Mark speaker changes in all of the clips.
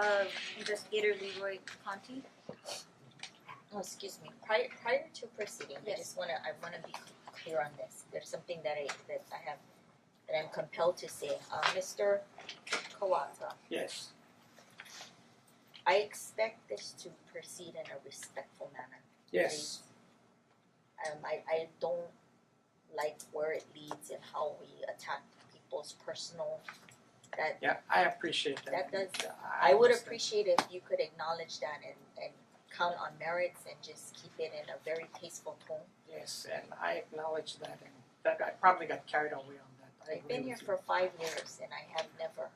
Speaker 1: of Investigator Leroy Conti.
Speaker 2: Oh, excuse me, prior prior to proceeding, I
Speaker 1: Yes.
Speaker 2: just wanna, I wanna be clear on this, there's something that I, that I have, that I'm compelled to say, uh, Mister Kawata,
Speaker 3: Yes.
Speaker 2: I expect this to proceed in a respectful manner.
Speaker 3: Yes.
Speaker 2: Um, I I don't like where it leads and how we attack people's personal, that,
Speaker 3: Yeah, I appreciate that.
Speaker 2: That does-
Speaker 3: I
Speaker 2: I would
Speaker 3: understand.
Speaker 2: appreciate if you could acknowledge that and and count on merits and just keep it in a very tasteful tone.
Speaker 3: Yes, and I acknowledge that and that I probably got carried away on that. I
Speaker 2: I've been
Speaker 3: agree
Speaker 2: here
Speaker 3: with you.
Speaker 2: for five years and I have never,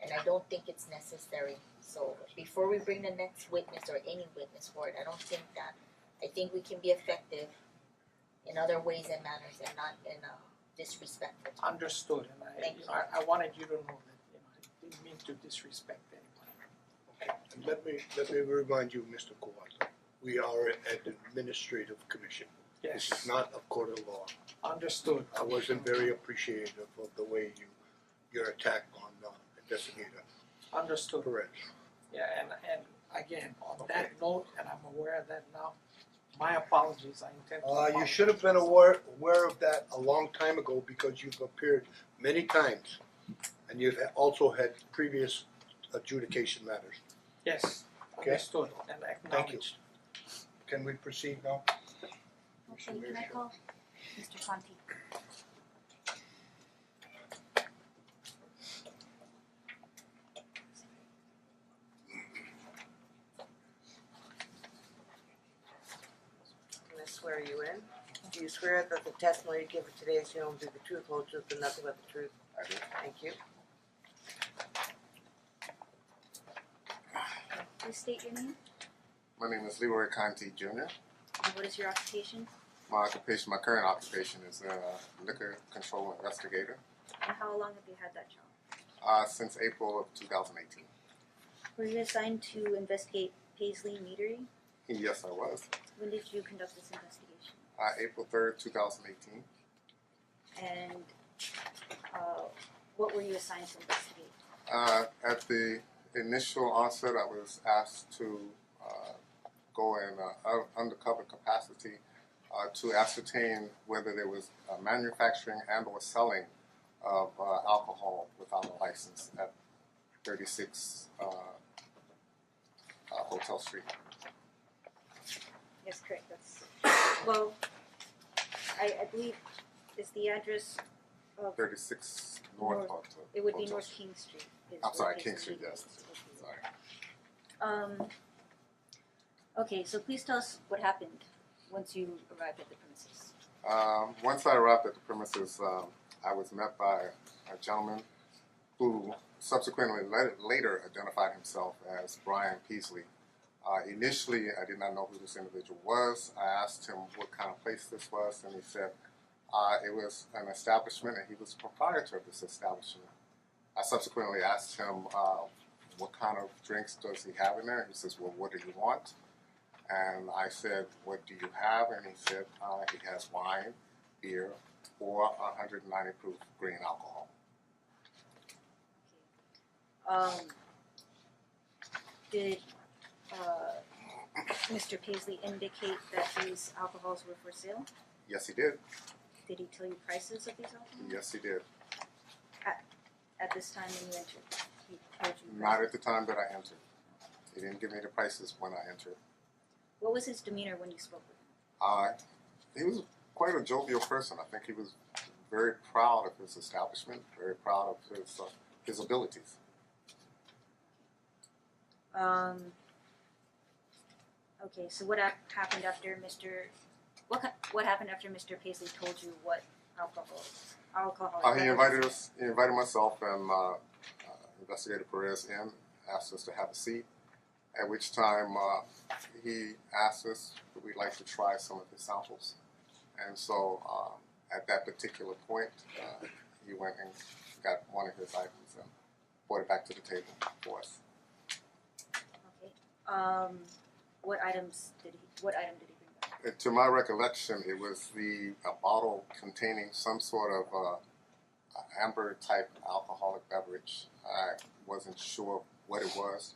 Speaker 2: and I don't think it's necessary. So before we bring the next witness or any witness for it, I don't think that, I think we can be effective in other ways and manners and not in a disrespectful tone.
Speaker 3: Understood, and I,
Speaker 2: Thank
Speaker 3: you know, I I wanted you to know that, you know, I didn't mean to disrespect anyone.
Speaker 4: And Let me, let me remind you, Mr. Kawata, we are an administrative commission. This is
Speaker 3: Yes,
Speaker 4: not a court of law.
Speaker 3: understood.
Speaker 4: I wasn't very appreciative of the way you, your attack on uh, investigator Uh,
Speaker 3: Understood.
Speaker 4: Perez.
Speaker 3: Yeah, and and again, on that note, and I'm aware of that now, my apologies, I intend to
Speaker 4: Uh,
Speaker 3: apologize.
Speaker 4: you should have been aware, aware of that a long time ago because you've appeared many times. And you've also had previous adjudication matters.
Speaker 3: Yes,
Speaker 4: Okay.
Speaker 3: understood and
Speaker 4: Thank you.
Speaker 3: acknowledged.
Speaker 4: Can we proceed now?
Speaker 1: Okay, can I call Mr. Conti?
Speaker 5: Can I swear you in? Do you swear that the testimony you give at today's hearing will be the truth, whole truth, and nothing but the truth? Thank you.
Speaker 1: Okay, Please state your name
Speaker 6: My name is Leroy Conti Jr.
Speaker 1: and what is your occupation
Speaker 6: My occupation, my current occupation is a liquor control investigator
Speaker 1: and how long have you had that job?
Speaker 6: uh, since April of 2018.
Speaker 1: Were you assigned to investigate Paisley Meadery?
Speaker 6: Yes, I was.
Speaker 1: When did you conduct this investigation?
Speaker 6: Uh, April 3rd, 2018.
Speaker 1: And uh what were you assigned to investigate?
Speaker 6: Uh, at the initial onset, I was asked to uh, go in uh, un- undercover capacity uh, to ascertain whether there was uh, manufacturing and or selling of uh, alcohol without a license at 36 uh, uh, Hotel Street.
Speaker 1: Yes, correct, that's, well, I I believe is the address of,
Speaker 6: 36 North
Speaker 1: North.
Speaker 6: Hotel.
Speaker 1: it would be
Speaker 6: Hotel
Speaker 1: North
Speaker 6: Street.
Speaker 1: King Street is
Speaker 6: I'm
Speaker 1: where
Speaker 6: sorry,
Speaker 1: Paisley
Speaker 6: King Street,
Speaker 1: Meadery
Speaker 6: yes.
Speaker 1: is located.
Speaker 6: Sorry.
Speaker 1: Um, okay, so please tell us what happened once you arrived at the premises.
Speaker 6: Um, once I arrived at the premises, um, I was met by a gentleman who subsequently let, later identified himself as Brian Peasley. Uh, initially, I did not know who this individual was. I asked him what kind of place this was, and he said uh, it was an establishment and he was the proprietor of this establishment. I subsequently asked him uh, what kind of drinks does he have in there. He says, Well, what do you want? And I said, What do you have? And he said, uh, He has wine, beer, or 190 proof green alcohol.
Speaker 1: Um, did uh, Mr. Paisley indicate that these alcohols were for sale?
Speaker 6: Yes, he did.
Speaker 1: Did he tell you prices of these alcohols?
Speaker 6: Yes, he did.
Speaker 1: At this time when you entered, he told you
Speaker 6: Not
Speaker 1: prices.
Speaker 6: at the time that I entered. He didn't give me the prices when I entered.
Speaker 1: What was his demeanor when you spoke with him?
Speaker 6: Uh, he was quite a jovial person. I think he was very proud of his establishment, very proud of his, uh, his abilities.
Speaker 1: Um, okay, so what hap- happened after Mr. What ca- what happened after Mr. Paisley told you what alcohol alcohol?
Speaker 6: Uh, he invited us. He invited myself and uh, uh, Investigator Perez in, asked us to have a seat. At which time uh, he asked us if we'd like to try some of his samples, and so um, at that particular point, uh, he went and got one of his items and brought it back to the table for us.
Speaker 1: Okay. Um, what items did he? What item did he bring back?
Speaker 6: Uh, to my recollection, it was the a bottle containing some sort of uh, amber type alcoholic beverage. I wasn't sure what it was.